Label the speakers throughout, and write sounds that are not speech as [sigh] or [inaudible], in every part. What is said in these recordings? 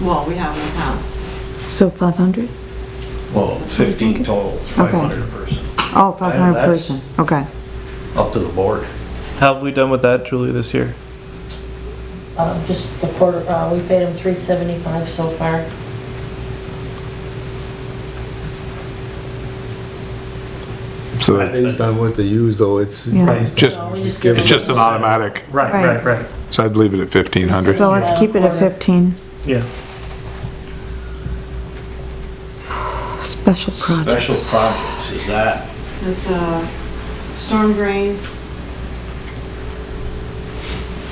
Speaker 1: Well, we have in the past.
Speaker 2: So 500?
Speaker 3: Well, 15 total, 500 a person,
Speaker 2: Oh, 500
Speaker 3: that's-
Speaker 2: person, okay.
Speaker 3: up to the board.
Speaker 4: How have we done with that, Julie, this year?
Speaker 5: Uh, Just the quarter, uh, we paid them 375 so far.
Speaker 6: So based on what they use though, it's
Speaker 2: Yeah.
Speaker 6: based.
Speaker 7: Just-
Speaker 5: No, we just
Speaker 6: give
Speaker 5: give
Speaker 7: It's
Speaker 5: them-
Speaker 7: just an automatic,
Speaker 4: Right,
Speaker 2: Right.
Speaker 4: right, right,
Speaker 7: so I'd leave it at 1,500.
Speaker 2: So let's keep it at 15,
Speaker 4: yeah.
Speaker 2: special
Speaker 3: Special
Speaker 2: projects.
Speaker 3: projects, is that,
Speaker 1: It's, uh, storm drains.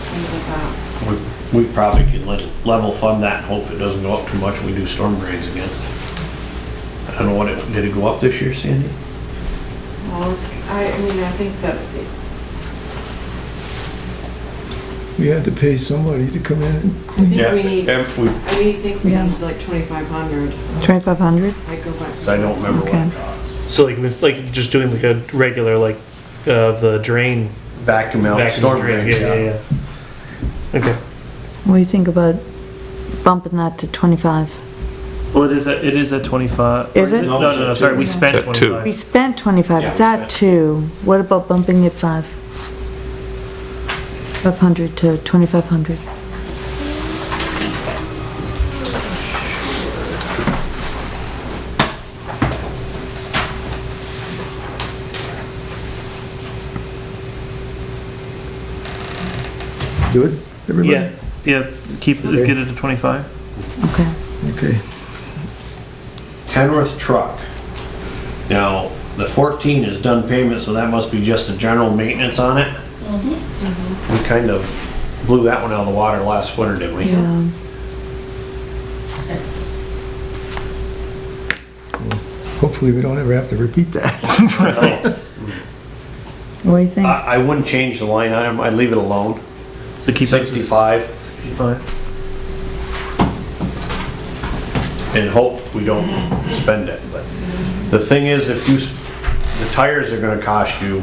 Speaker 1: Things like that.
Speaker 3: we- we probably could le- level fund that and hope it doesn't go up too much when we do storm drains again. I don't know what it, did it go up this year, Sandy?
Speaker 1: Well, it's, I, I mean, I think that it-
Speaker 6: We had to pay somebody to come in and clean.
Speaker 1: Yeah,
Speaker 3: Yeah,
Speaker 1: we need-
Speaker 3: and we-
Speaker 1: I really think we
Speaker 2: Yeah.
Speaker 1: need like twenty-five hundred.
Speaker 2: 2,500?
Speaker 1: I go back.
Speaker 3: So I don't remember what
Speaker 2: Okay.
Speaker 3: it costs.
Speaker 4: So like, this- like just doing like a regular like uh, the drain
Speaker 3: Vacuum out,
Speaker 4: vacuum
Speaker 3: storm
Speaker 4: drain.
Speaker 3: drains,
Speaker 4: Yeah, yeah,
Speaker 3: yeah.
Speaker 4: yeah. Okay.
Speaker 2: What do you think about bumping that to 25?
Speaker 4: Well, it is at, it is at 25. or
Speaker 2: Is it?
Speaker 4: No, no, no, sorry, we spent
Speaker 7: At two.
Speaker 4: 25.
Speaker 2: We spent 25,
Speaker 3: Yeah,
Speaker 2: it's
Speaker 3: we
Speaker 2: at
Speaker 3: spent.
Speaker 2: 2. What about bumping it 5? 500 to 2,500?
Speaker 6: Good, everybody?
Speaker 4: Yeah, yeah, keep,
Speaker 6: Okay.
Speaker 4: get it to 25.
Speaker 2: Okay.
Speaker 6: Okay.
Speaker 3: Kenworth truck. Now, the 14 is done payment, so that must be just the general maintenance on it. We kind of blew that one out of the water last winter, didn't we?
Speaker 2: Yeah.
Speaker 6: Hopefully we don't ever have to repeat that.
Speaker 3: No,
Speaker 2: What do you think?
Speaker 3: [laughs] I, I wouldn't change the line item, I'd leave it alone.
Speaker 4: So keep it to
Speaker 3: 65
Speaker 4: 65.
Speaker 3: and hope we don't spend it, but the thing is, if you, s- the tires are gonna cost you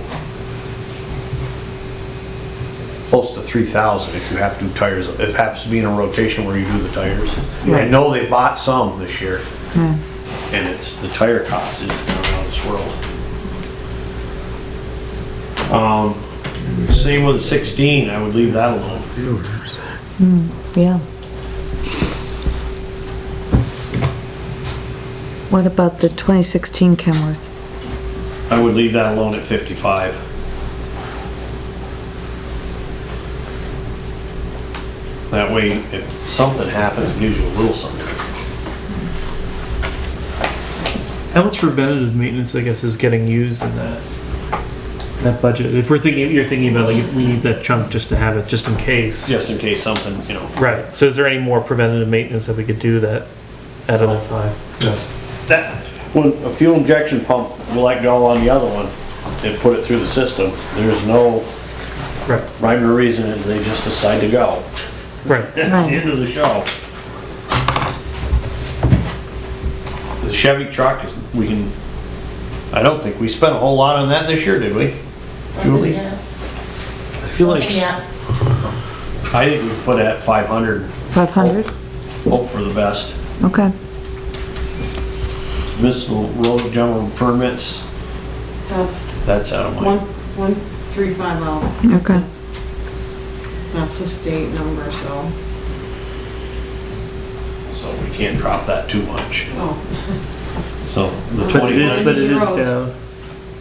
Speaker 3: close to 3,000 if you have to do tires, if it happens to be in a rotation where you do the tires. I
Speaker 2: Right.
Speaker 3: know they bought some this year.
Speaker 2: Yeah.
Speaker 3: and it's, the tire cost is out of this world. Um, same with sixteen, I would leave that alone.
Speaker 2: Yeah. What about the 2016 Kenworth?
Speaker 3: I would leave that alone at fifty-five. That way, if something happens, it gives you a little something.
Speaker 4: How much preventative maintenance, I guess, is getting used in that? That budget. If we're thinking, you're thinking about like we need that chunk just to have it, just in case.
Speaker 3: Just in case something, you know,
Speaker 4: Right. So is there any more preventative maintenance that we could do that at level five?
Speaker 3: that, when a fuel injection pump, like go on the other one, and put it through the system, there's no
Speaker 4: Right.
Speaker 3: rhyme or reason, and they just decide to go.
Speaker 4: Right.
Speaker 3: That's the end of the show. The Chevy truck is, we can, I don't think we spent a whole lot on that this year, did we? Julie?
Speaker 5: Yeah.
Speaker 4: I feel like
Speaker 5: Yeah.
Speaker 3: I think we put at five hundred,
Speaker 2: 500?
Speaker 3: hope for the best.
Speaker 2: Okay.
Speaker 3: Municipal road general permits,
Speaker 1: That's
Speaker 3: that's out of
Speaker 1: one,
Speaker 3: my,
Speaker 1: one, three, five, oh.
Speaker 2: Okay.
Speaker 1: That's a state number, so,
Speaker 3: so we can't drop that too much.
Speaker 1: oh,
Speaker 3: So the
Speaker 4: But it is,
Speaker 3: twenty,
Speaker 4: but it is down.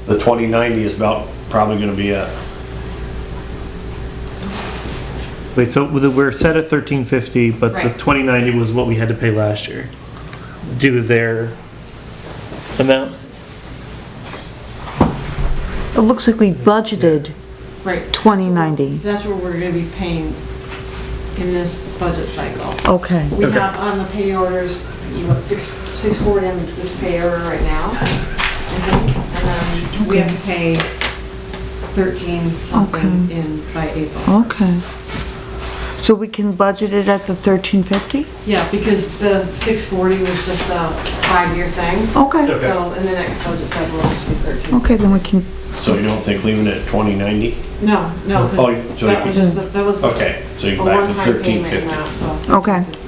Speaker 3: the twenty ninety is about, probably gonna be a,
Speaker 4: Wait, so with the- we're set at thirteen fifty, but the
Speaker 1: Right.
Speaker 4: twenty ninety was what we had to pay last year. Due to their amount?
Speaker 2: It looks like we budgeted
Speaker 1: right.
Speaker 2: 2090.
Speaker 1: That's what we're gonna be paying in this budget cycle.
Speaker 2: Okay.
Speaker 1: We have on the pay orders, you want six, six forty on this pay order right now. Mhm. And then we have to pay thirteen something in by April.
Speaker 2: Okay. So we can budget it at the 1350?
Speaker 1: Yeah, because the six forty was just a five-year thing.
Speaker 2: Okay.
Speaker 1: So in the next budget cycle, it'll just be thirteen.
Speaker 2: Okay, then we can,
Speaker 3: so you don't think leaving it at twenty ninety?
Speaker 1: No, no,
Speaker 3: Oh,
Speaker 1: 'cause
Speaker 3: so you
Speaker 1: that was
Speaker 3: can-
Speaker 1: just, a- that was a
Speaker 3: Okay, so you go back to
Speaker 1: one-time
Speaker 3: thirteen
Speaker 1: payment
Speaker 3: fifty.
Speaker 1: amount, so.
Speaker 2: Okay.